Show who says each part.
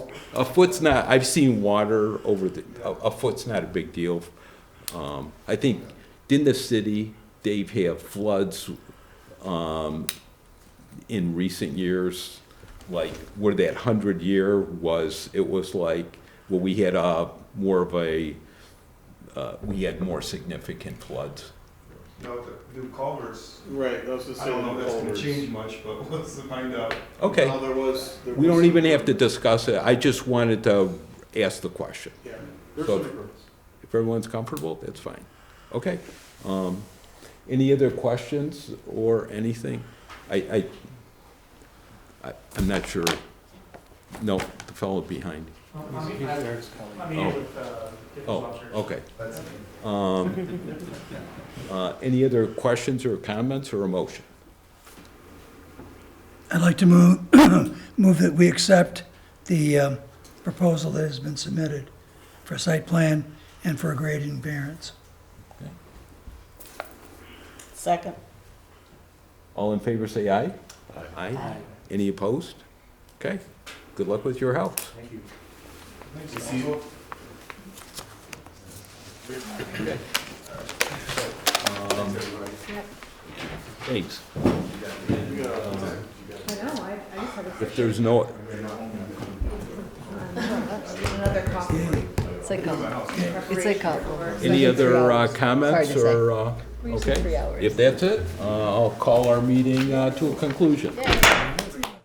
Speaker 1: A foot's not, I've seen water over the, a, a foot's not a big deal. Um, I think, didn't the city, Dave, have floods, um, in recent years? Like, where that hundred year was, it was like, well, we had a, more of a, uh, we had more significant floods.
Speaker 2: No, the new culverts,
Speaker 3: Right, I was just
Speaker 2: I
Speaker 3: saying.
Speaker 2: don't know if that's gonna
Speaker 3: culverts.
Speaker 2: change much, but let's find out.
Speaker 1: Okay.
Speaker 3: No, there was. there
Speaker 1: We
Speaker 3: was
Speaker 1: don't
Speaker 3: some-
Speaker 1: even have to discuss it, I just wanted to ask the question.
Speaker 3: Yeah, there's
Speaker 1: So-
Speaker 3: some improvements.
Speaker 1: If everyone's comfortable, that's fine. Okay. Um, Any other questions or anything? I, I, I- I'm not sure. No, the fellow behind.
Speaker 4: I mean, I- I mean,
Speaker 1: Oh.
Speaker 4: with, uh, different
Speaker 1: Oh,
Speaker 4: officers.
Speaker 1: okay.
Speaker 2: That's
Speaker 1: Um, uh, Any other questions or comments or a motion?
Speaker 5: I'd like to move, move that we accept the um, proposal that has been submitted for site plan and for a grading variance.
Speaker 6: Second.
Speaker 1: All in favor, say aye. Aye. Any opposed? Okay. Good luck with your health.
Speaker 4: Thank you.
Speaker 1: Thanks.
Speaker 7: I know, I, I just had a.
Speaker 1: If there's no,
Speaker 7: Another coffee.
Speaker 8: It's like a, it's like a.
Speaker 1: Any other uh, comments
Speaker 8: Sorry to say.
Speaker 1: or, uh,
Speaker 8: We're using
Speaker 1: okay?
Speaker 8: three hours.
Speaker 1: If that's it, uh, I'll call our meeting uh, to a conclusion.
Speaker 8: Yeah.